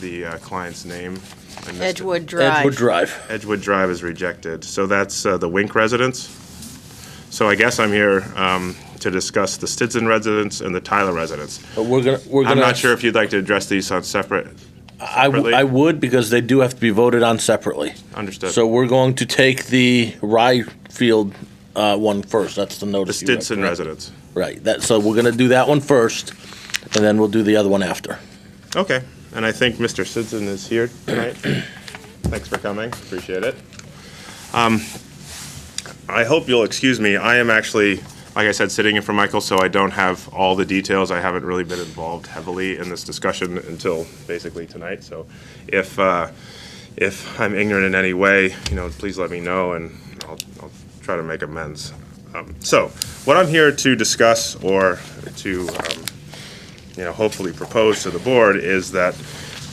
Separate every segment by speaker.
Speaker 1: the uh, client's name. I missed it.
Speaker 2: Edgewood Drive.
Speaker 3: Edgewood Drive.
Speaker 1: Edgewood Drive is rejected. So that's uh, the Wink residence. So I guess I'm here um, to discuss the Stinson residence and the Tyler residence.
Speaker 3: But Uh, we're gonna, we're gonna.
Speaker 1: I'm not sure if you'd like to address these on separate,
Speaker 3: I, w-
Speaker 1: separately.
Speaker 3: I would because they do have to be voted on separately.
Speaker 1: understood.
Speaker 3: So we're going to take the Rye Field uh, one first. That's the
Speaker 1: The
Speaker 3: notice. you read,
Speaker 1: Stinson
Speaker 3: correct?
Speaker 1: residence.
Speaker 3: Right. That. So we're gonna do that one first, and then we'll do the other one after.
Speaker 1: Okay, and I think Mr. Stinson is here tonight. Thanks for coming, appreciate it. Um, I hope you'll excuse me, I am actually, like I said, sitting in for Michael, so I don't have all the details. I haven't really been involved heavily in this discussion until basically tonight, so if, uh, if I'm ignorant in any way, you know, please let me know, and I'll, I'll try to make amends. Um, So, what I'm here to discuss, or to um, you know, hopefully propose to the board is that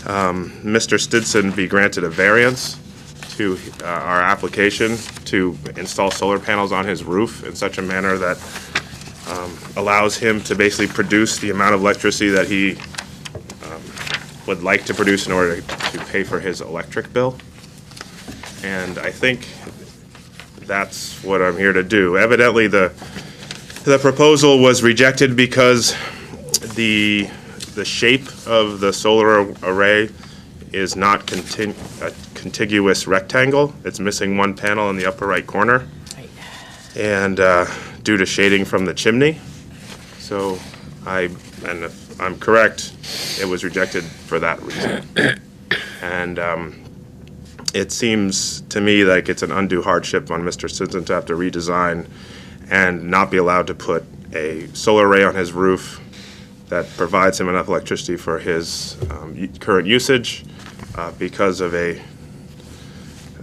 Speaker 1: um, Mr. Stinson be granted a variance to uh, our application to install solar panels on his roof in such a manner that um, allows him to basically produce the amount of electricity that he um, would like to produce in order to pay for his electric bill. And I think that's what I'm here to do. Evidently, the, the proposal was rejected because the, the shape of the solar array is not contin- a contiguous rectangle. It's missing one panel in the upper right corner. And uh, due to shading from the chimney. So I, and if I'm correct, it was rejected for that reason. And um, it seems to me like it's an undue hardship on Mr. Stinson to have to redesign and not be allowed to put a solar array on his roof that provides him enough electricity for his um, u- current usage uh, because of a,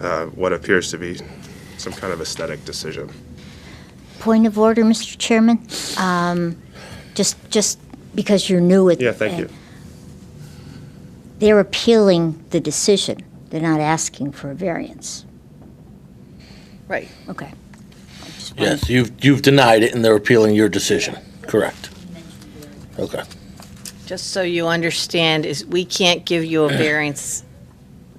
Speaker 1: uh, what appears to be some kind of aesthetic decision.
Speaker 4: Point of order, Mr. Chairman. Um, Just, just because you're new at.
Speaker 1: Yeah, thank you.
Speaker 4: They're appealing the decision. They're not asking for a variance.
Speaker 2: Right.
Speaker 4: Okay.
Speaker 3: Yes. You've you've denied it, and they're appealing your decision. Correct. Okay.
Speaker 2: Just so you understand, is we can't give you a variance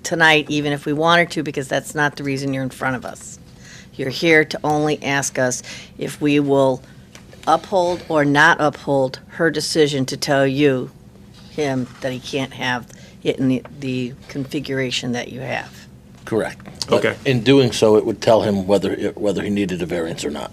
Speaker 2: tonight, even if we wanted to, because that's not the reason you're in front of us. You're here to only ask us if we will uphold or not uphold her decision to tell you, him, that he can't have it in the, the configuration that you have.
Speaker 3: Correct.
Speaker 1: Okay.
Speaker 3: But in doing so, it would tell him whether it, whether he needed a variance or not.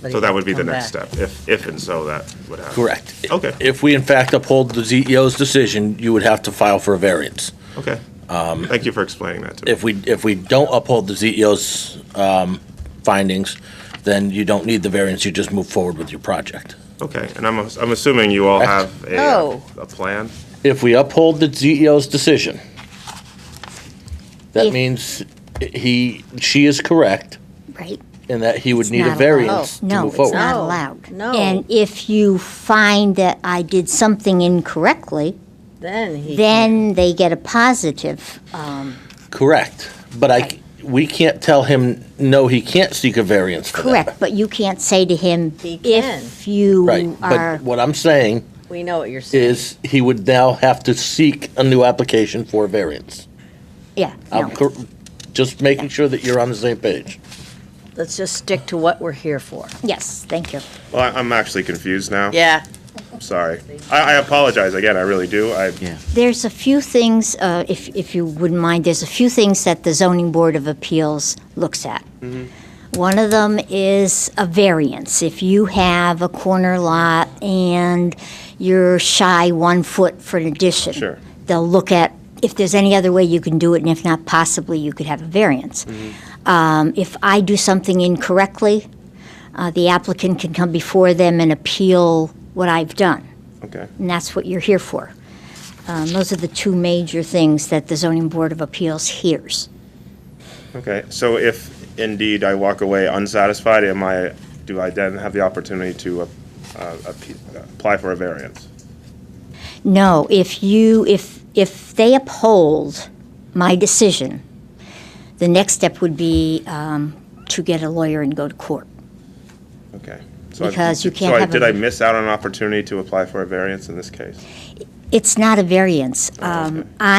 Speaker 2: But
Speaker 1: So
Speaker 2: he
Speaker 1: that
Speaker 2: can
Speaker 1: would be the
Speaker 2: come
Speaker 1: next
Speaker 2: back.
Speaker 1: step, if, if and so that would happen.
Speaker 3: Correct.
Speaker 1: Okay.
Speaker 3: If we in fact uphold the CEO's decision, you would have to file for a variance.
Speaker 1: Okay. Thank you for explaining that to me.
Speaker 3: Um, If we, if we don't uphold the CEO's um, findings, then you don't need the variance, you just move forward with your project.
Speaker 1: Okay, and I'm, ass- I'm assuming you all
Speaker 3: Correct.
Speaker 1: have a, uh,
Speaker 2: Oh.
Speaker 1: a plan?
Speaker 3: If we uphold the CEO's decision, that
Speaker 4: If-
Speaker 3: means he, she is correct
Speaker 4: Right?
Speaker 3: in that he would
Speaker 4: It's
Speaker 3: need a
Speaker 4: not allowed.
Speaker 3: variance to
Speaker 4: No,
Speaker 3: move
Speaker 4: it's
Speaker 3: forward.
Speaker 4: not
Speaker 2: No,
Speaker 4: allowed.
Speaker 2: no.
Speaker 4: And if you find that I did something incorrectly,
Speaker 2: Then he.
Speaker 4: then they get a positive.
Speaker 3: Correct, but I, c- we can't tell him, no, he can't seek a variance for that.
Speaker 4: Correct, but you can't say to him,
Speaker 2: He can.
Speaker 4: if you
Speaker 3: Right,
Speaker 4: are.
Speaker 3: but what I'm saying
Speaker 2: We know what you're saying.
Speaker 3: is he would now have to seek a new application for a variance.
Speaker 4: Yeah, no.
Speaker 3: I'm cor- just making sure that you're on the same page.
Speaker 2: Let's just stick to what we're here for.
Speaker 4: Yes, thank you.
Speaker 1: Well, I- I'm actually confused now.
Speaker 2: Yeah.
Speaker 1: I'm sorry. I, I apologize, again, I really do. I,
Speaker 4: There's a few things, uh, if, if you wouldn't mind, there's a few things that the zoning board of appeals looks at. One of them is a variance. If you have a corner lot and you're shy one foot for an addition.
Speaker 1: Sure.
Speaker 4: They'll look at if there's any other way you can do it, and if not, possibly you could have a variance. Um, If I do something incorrectly, uh, the applicant can come before them and appeal what I've done
Speaker 1: okay,
Speaker 4: and that's what you're here for. Um, Those are the two major things that the zoning board of appeals hears.
Speaker 1: okay. So if indeed I walk away unsatisfied, am I, do I then have the opportunity to uh, uh, appe- apply for a variance?
Speaker 4: No, if you, if, if they uphold my decision, the next step would be um, to get a lawyer and go to court.
Speaker 1: Okay. So I-
Speaker 4: Because you can't
Speaker 1: so I-
Speaker 4: have a-
Speaker 1: Did I miss out on an opportunity to apply for a variance in this case?
Speaker 4: It's not a variance. Um, I